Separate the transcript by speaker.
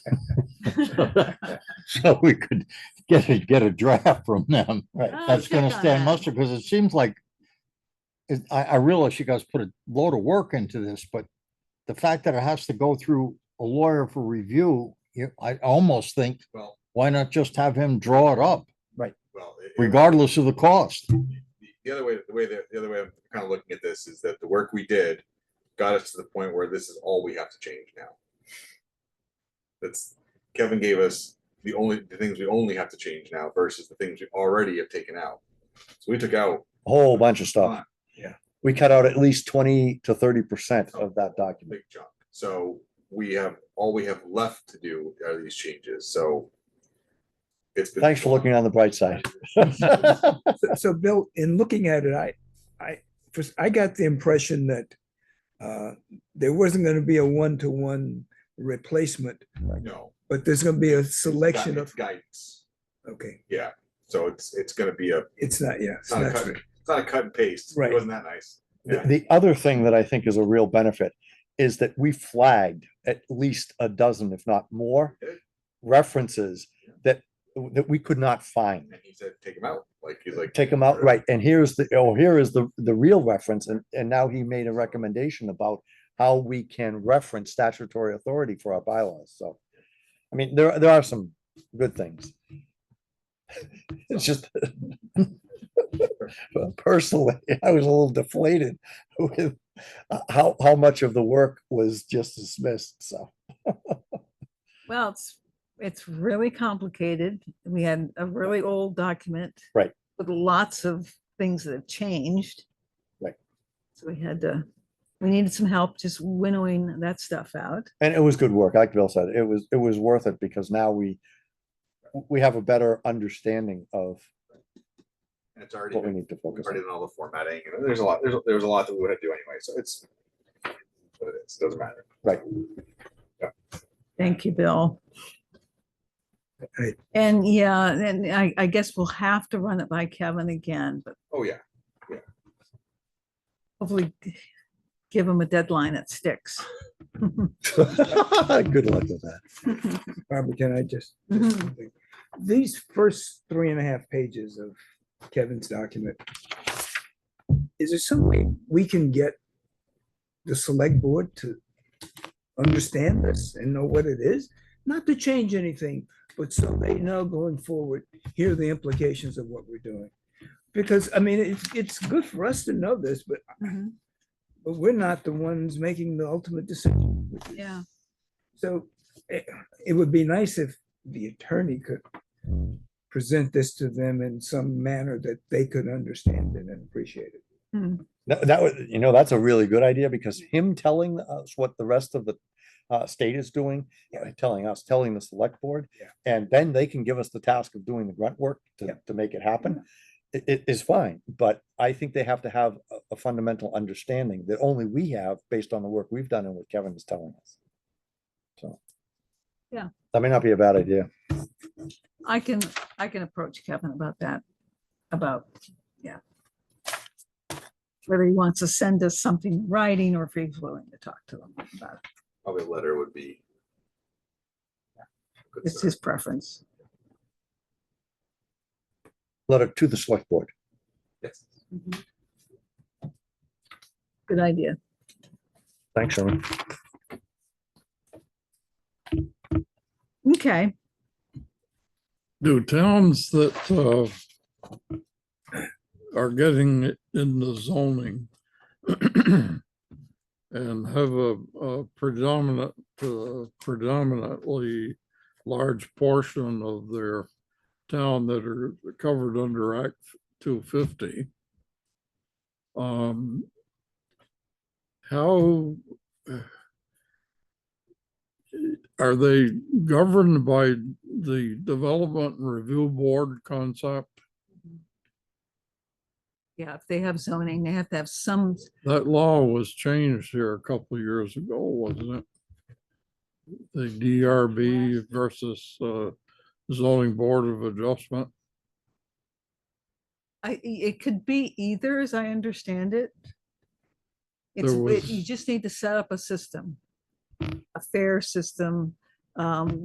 Speaker 1: So we could get a, get a draft from them
Speaker 2: Right.
Speaker 3: Oh,
Speaker 1: that's gonna
Speaker 3: check on
Speaker 1: stand
Speaker 3: that.
Speaker 1: muster, because it seems like it- I, I realize you guys put a load of work into this, but the fact that it has to go through a lawyer for review, you, I almost think,
Speaker 4: Well-
Speaker 1: why not just have him draw it up
Speaker 4: Well, it- it-
Speaker 1: regardless of the cost?
Speaker 4: the- the other way, the way that, the other way I'm kind of looking at this is that the work we did got us to the point where this is all we have to change now. That's, Kevin gave us the only, the things we only have to change now versus the things we already have taken out. So we took out,
Speaker 2: a whole bunch of stuff.
Speaker 4: Yeah.
Speaker 2: We cut out at least twenty to thirty percent of that
Speaker 4: a
Speaker 2: document.
Speaker 4: big chunk. So we have, all we have left to do are these changes, so. it's been-
Speaker 2: Thanks for looking on the bright side.
Speaker 5: So- So Bill, in looking at it, I, I, first, I got the impression that uh, there wasn't going to be a one-to-one replacement,
Speaker 4: No.
Speaker 5: but there's going to be a
Speaker 4: it's
Speaker 5: selection
Speaker 4: gui-
Speaker 5: of,
Speaker 4: it's Guidance,
Speaker 5: okay,
Speaker 4: yeah, so it's, it's gonna be a,
Speaker 5: it's not, yeah.
Speaker 4: it's
Speaker 5: it's
Speaker 4: not a
Speaker 5: not
Speaker 4: cut, it's not a cut and paste,
Speaker 5: Right.
Speaker 4: it wasn't that nice.
Speaker 2: The
Speaker 4: Yeah.
Speaker 2: the other thing that I think is a real benefit is that we flagged at least a dozen, if not more,
Speaker 4: We did.
Speaker 2: references that, that we could not find.
Speaker 4: And he said, take him out. Like, he's like,
Speaker 2: take them out, right, and here's the, oh, here is the, the real reference, and, and now he made a recommendation about how we can reference statutory authority for our bylaws, so. I mean, there, there are some good things. It's just. Personally, I was a little deflated with uh, how, how much of the work was just dismissed, so.
Speaker 3: Well, it's, it's really complicated. We had a really old document.
Speaker 2: Right.
Speaker 3: With lots of things that have changed.
Speaker 2: Right.
Speaker 3: So we had to, we needed some help just winnowing that stuff out.
Speaker 2: And it was good work, like Bill said, it was, it was worth it, because now we, we have a better understanding of
Speaker 4: and it's already,
Speaker 2: what we
Speaker 4: been-
Speaker 2: need to focus on.
Speaker 4: already done all the formatting. And there's a lot, there's, there's a lot that we would have to do anyway. So it's, what it is, doesn't matter.
Speaker 3: Thank you, Bill.
Speaker 5: Right.
Speaker 3: And yeah, and I, I guess we'll have to run it by Kevin again, but
Speaker 4: Oh, yeah.
Speaker 3: hopefully g- give him a deadline that sticks.
Speaker 2: Good luck with that.
Speaker 5: Barbara, can I just? just
Speaker 3: Mhm.
Speaker 5: something? These first three and a half pages of Kevin's document, is there some way we can get the select board to understand this and know what it is? Not to change anything, but so they know going forward, here are the implications of what we're doing. Because, I mean, it's, it's good for us to know this, but,
Speaker 3: Mhm.
Speaker 5: but we're not the ones making the ultimate decision. which is-
Speaker 3: Yeah,
Speaker 5: so it, it would be nice if the attorney could present this to them in some manner that they could understand it and appreciate it.
Speaker 2: That, that was, you know, that's a really good idea because him telling us what the rest of the uh, state is doing, uh, telling us, telling the select board.
Speaker 5: Yeah.
Speaker 2: And then they can give us the task of doing the grunt work to,
Speaker 5: Yeah.
Speaker 2: to make it happen. It, it is fine, but I think they have to have a, a fundamental understanding that only we have based on the work we've done and what Kevin is telling us. So.
Speaker 3: Yeah.
Speaker 2: That may not be a bad idea.
Speaker 3: I can, I can approach Kevin about that, about, yeah. Whether he wants to send us something in writing or if he's willing to talk to them about it.
Speaker 4: Probably a letter would be. Good
Speaker 3: It's
Speaker 4: start.
Speaker 3: his preference.
Speaker 2: Letter to the select board.
Speaker 4: Yes.
Speaker 3: Good idea.
Speaker 2: Thanks, Sherman.
Speaker 3: Okay,
Speaker 6: do towns that uh are getting it in the zoning and have a a predominant, uh, predominantly large portion of their town that are covered under Act two fifty. Um, how are they governed by the development and review board concept?
Speaker 3: yeah, if they have zoning, they have to have some,
Speaker 6: That law was changed here a couple of years ago, wasn't it? The DRB versus uh, zoning board of adjustment.
Speaker 3: I, it could be either, as I understand it. It's,
Speaker 6: There
Speaker 3: it- you
Speaker 6: was-
Speaker 3: just need to set up a system, a fair system, um,